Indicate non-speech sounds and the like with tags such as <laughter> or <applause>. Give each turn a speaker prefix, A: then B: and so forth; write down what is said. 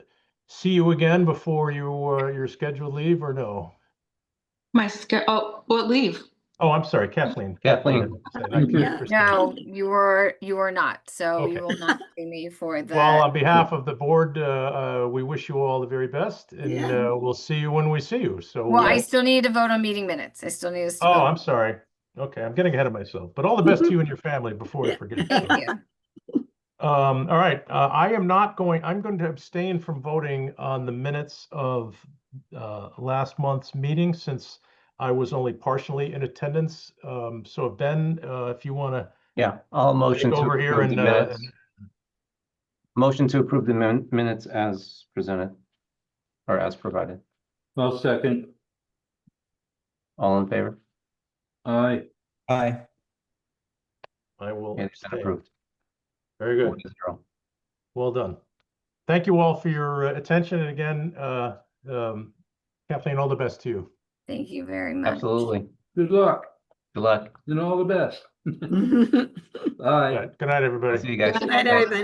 A: see you again before you, uh, your scheduled leave or no?
B: My schedule, oh, well, leave.
A: Oh, I'm sorry, Kathleen.
C: Kathleen.
A: Said, I
D: Yeah,
A: can't understand.
D: No, you are, you are not, so
A: Okay.
D: you will not see me for the.
A: <laughs> Well, on behalf of the board, uh, uh, we wish you all the very best and,
B: Yeah.
A: uh, we'll see you when we see you. So.
D: Well,
A: uh,
D: I still need to vote on meeting minutes. I still need us to.
A: Oh,
D: vote.
A: I'm sorry. Okay, I'm getting ahead of myself, but all the best to you and your family before I forget.
D: Thank you.
A: Um, all right, uh, I am not going, I'm going to abstain from voting on the minutes of, uh, last month's meeting since I was only partially in attendance. Um, so Ben, uh, if you want to,
C: Yeah, I'll motion to
A: over here
C: approve the
A: and, uh,
C: minutes. Motion to approve the min- minutes as presented or as provided.
E: I'll second.
C: All in favor?
E: Aye.
F: Aye.
A: I will
C: It is
A: abstain.
C: approved.
A: Very
C: Four
A: good.
C: to zero.
A: Well done. Thank you all for your uh, attention. And again, uh, um, Kathleen, all the best to you.
D: Thank
A: <laughs>
D: you very much.
C: Absolutely.
E: Good luck
C: Good luck.
E: and all the best. <laughs>
B: Good
E: Aye.
A: All right, Good night, everybody.
C: See you guys.
B: night, everybody.